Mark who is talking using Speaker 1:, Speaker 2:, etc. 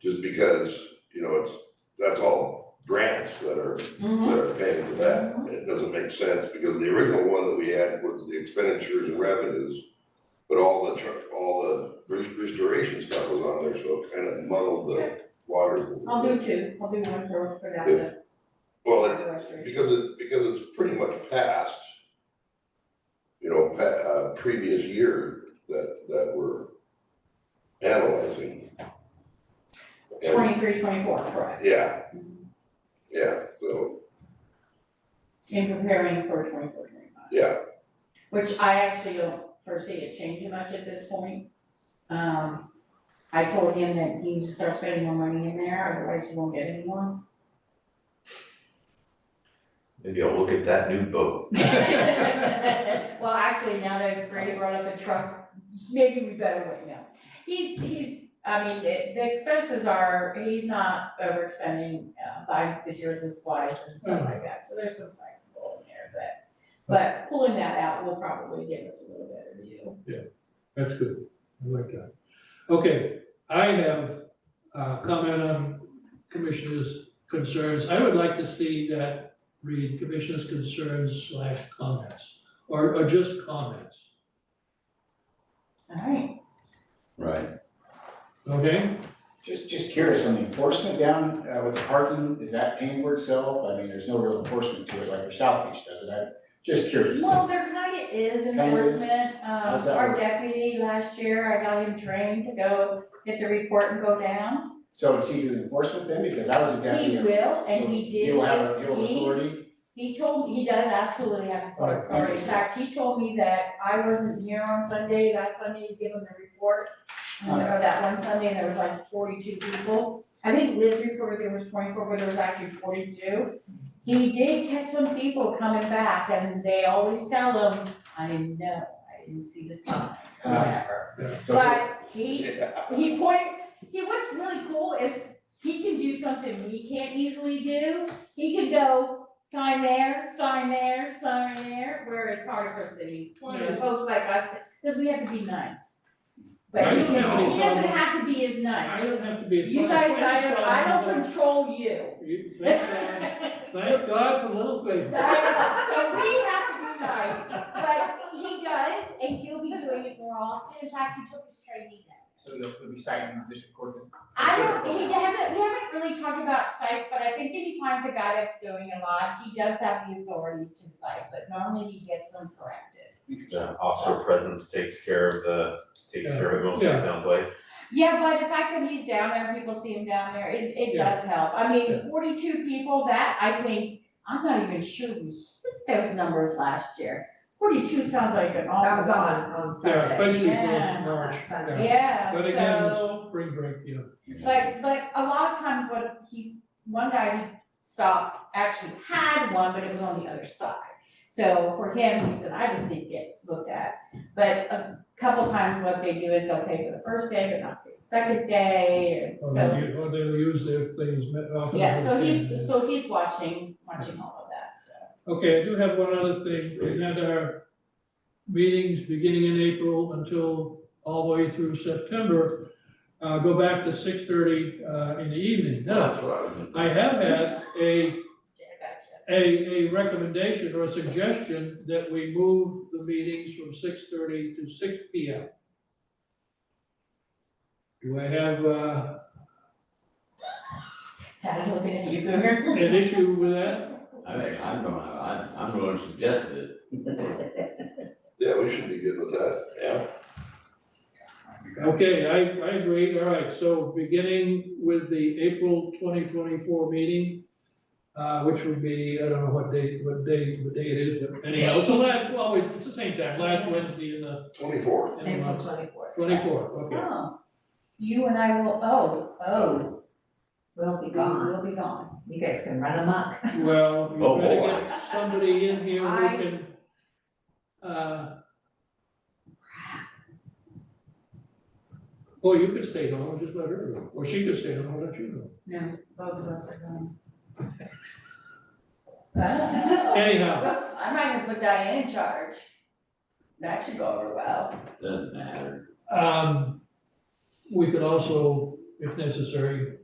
Speaker 1: just because, you know, it's, that's all grants that are,
Speaker 2: Mhm.
Speaker 1: that are paying for that. And It doesn't make sense because the original one that we had was the expenditures and revenues, but all the, tr- all the res- restoration stuff was on there, so it kind of muddled the waters. a little
Speaker 2: I'll
Speaker 1: bit.
Speaker 2: do two, I'll do one for, for that, the
Speaker 1: Well, it-
Speaker 2: water restoration.
Speaker 1: because it, because it's pretty much past, you know, pa- uh, previous year that, that we're analyzing. And-
Speaker 2: Twenty-three, twenty-four, correct,
Speaker 1: Yeah. Yeah, so,
Speaker 2: in preparing for twenty-four, twenty-five,
Speaker 1: yeah,
Speaker 2: which I actually don't foresee it changing much at this point. Um, I told him that he needs to start spending more money in there, otherwise he won't get any more.
Speaker 3: Maybe I'll look at that new boat.
Speaker 2: Well, actually, now that Brady brought up the truck, maybe we better wait now. He's, he's, I mean, the, the expenses are, he's not overexpending, uh, buying materials and supplies and stuff like that, so there's some flexible in there, but. But pulling that out will probably give us a little better view.
Speaker 4: That's good, I like that. Okay, I have a comment on commissioners' concerns. I would like to see that read commissioners' concerns slash comments, or, or just comments,
Speaker 2: Alright,
Speaker 3: Right.
Speaker 4: okay?
Speaker 5: Just, just curious, on the enforcement down uh, with the parking, is that paying for itself? I mean, there's no real enforcement to it like your South Beach does it. I'm just curious.
Speaker 2: well, there kinda is
Speaker 5: Kinda is.
Speaker 2: enforcement, um,
Speaker 5: How's that
Speaker 2: our
Speaker 5: work?
Speaker 2: deputy last year, I got him trained to go get the report and go down.
Speaker 5: So it's either enforcement then, because I was a deputy.
Speaker 2: He will, and he
Speaker 5: so
Speaker 2: did
Speaker 5: You'll have,
Speaker 2: this
Speaker 5: you'll have
Speaker 2: week.
Speaker 5: authority,
Speaker 2: He told, me he does absolutely have
Speaker 5: All right,
Speaker 2: authority, in
Speaker 5: interesting.
Speaker 2: fact, he told me that I wasn't here on Sunday, last Sunday to give him the report. And there- or that one Sunday, there was like forty-two people, I think Liz reported there was twenty-four, but there was actually forty-two. He did catch some people coming back, and they always tell him, I didn't know, I didn't see the sign, or
Speaker 5: Ah.
Speaker 2: whatever.
Speaker 5: so
Speaker 2: But he
Speaker 1: yeah,
Speaker 2: he points, see, what's really cool is he can do something we can't easily do. He could go sign there, sign there, sign there, where it's hard for city, you know, folks like us, because we have to be nice. But
Speaker 4: I
Speaker 2: he
Speaker 4: don't have
Speaker 2: can,
Speaker 4: any
Speaker 2: he doesn't
Speaker 4: problem.
Speaker 2: have to be as
Speaker 4: I
Speaker 2: nice.
Speaker 4: don't have to be. a
Speaker 2: You guys, I don't, I don't
Speaker 4: Thank
Speaker 2: control you.
Speaker 4: God- Thank God for little things.
Speaker 2: So we have to be nice, but he does, and he'll be doing it more often. In fact, he took his training then.
Speaker 5: So they'll, they'll be citing the district court then?
Speaker 2: I don't, he hasn't, we haven't really talked about sites, but I think if he finds a guy that's doing a lot, he does have the authority to cite, but normally he gets them corrected.
Speaker 3: The officer presence takes care of the, takes care of it mostly,
Speaker 4: Yeah.
Speaker 3: it sounds like.
Speaker 2: Yeah, but the fact that he's down there, people see him down there, it, it
Speaker 4: Yeah.
Speaker 2: does help. I
Speaker 4: Yeah.
Speaker 2: mean, forty-two people, that, I think, I'm not even sure we hit those numbers last year. Forty-two sounds like an awful
Speaker 6: That was
Speaker 2: lot.
Speaker 6: on, on
Speaker 4: Yeah,
Speaker 6: Sunday.
Speaker 4: especially
Speaker 2: Yeah.
Speaker 4: for March,
Speaker 6: Sunday.
Speaker 4: yeah.
Speaker 2: Yeah, so.
Speaker 4: But again, spring break, yeah.
Speaker 2: But, but a lot of times what he's, one guy he stopped, actually had one, but it was on the other side. So for him, he said, I just need to get looked at. But a couple times what they do is they'll pay for the first day, but not for the second day, and
Speaker 4: Or
Speaker 2: so.
Speaker 4: they, or they use their things met off. of
Speaker 2: Yeah, so
Speaker 4: the-
Speaker 2: he's, so he's watching, watching all of that, so.
Speaker 4: Okay, I do have one other thing. We had our meetings beginning in April until all the way through September. Uh, go back to six thirty, uh, in the evening.
Speaker 1: that's
Speaker 4: Now,
Speaker 1: what I was.
Speaker 4: I have had a,
Speaker 2: Gotcha.
Speaker 4: a, a recommendation or a suggestion that we move the meetings from six thirty to six P M. Do I have, uh,
Speaker 2: Dad's looking at you, Boomer.
Speaker 4: an issue with that?
Speaker 7: I think I'm gonna, I'm, I'm gonna suggest it.
Speaker 1: Yeah, we should be good with that. Yeah.
Speaker 4: Okay, I, I agree, all right, so beginning with the April twenty twenty-four meeting, uh, which would be, I don't know what day, what day, what day it is, but anyhow, it's the last, well, it's the same time, last Wednesday in the,
Speaker 1: Twenty-fourth,
Speaker 4: in the
Speaker 6: April
Speaker 4: month,
Speaker 6: twenty-fourth.
Speaker 4: twenty-four, okay.
Speaker 2: Oh, you and I will, oh, oh,
Speaker 6: We'll be gone.
Speaker 2: we'll be gone.
Speaker 6: You guys can run amok.
Speaker 4: Well,
Speaker 7: Oh,
Speaker 4: you better
Speaker 7: boy.
Speaker 4: get somebody in here who
Speaker 2: I-
Speaker 4: can, uh. Boy, Oh, you could stay home, just let her go, or she could stay home, why don't you go?
Speaker 2: No, both of us are gone. Oh.
Speaker 4: Anyhow,
Speaker 2: I'm not gonna put Diane in charge. That should go over well.
Speaker 7: Doesn't matter.
Speaker 4: Um, we could also if necessary,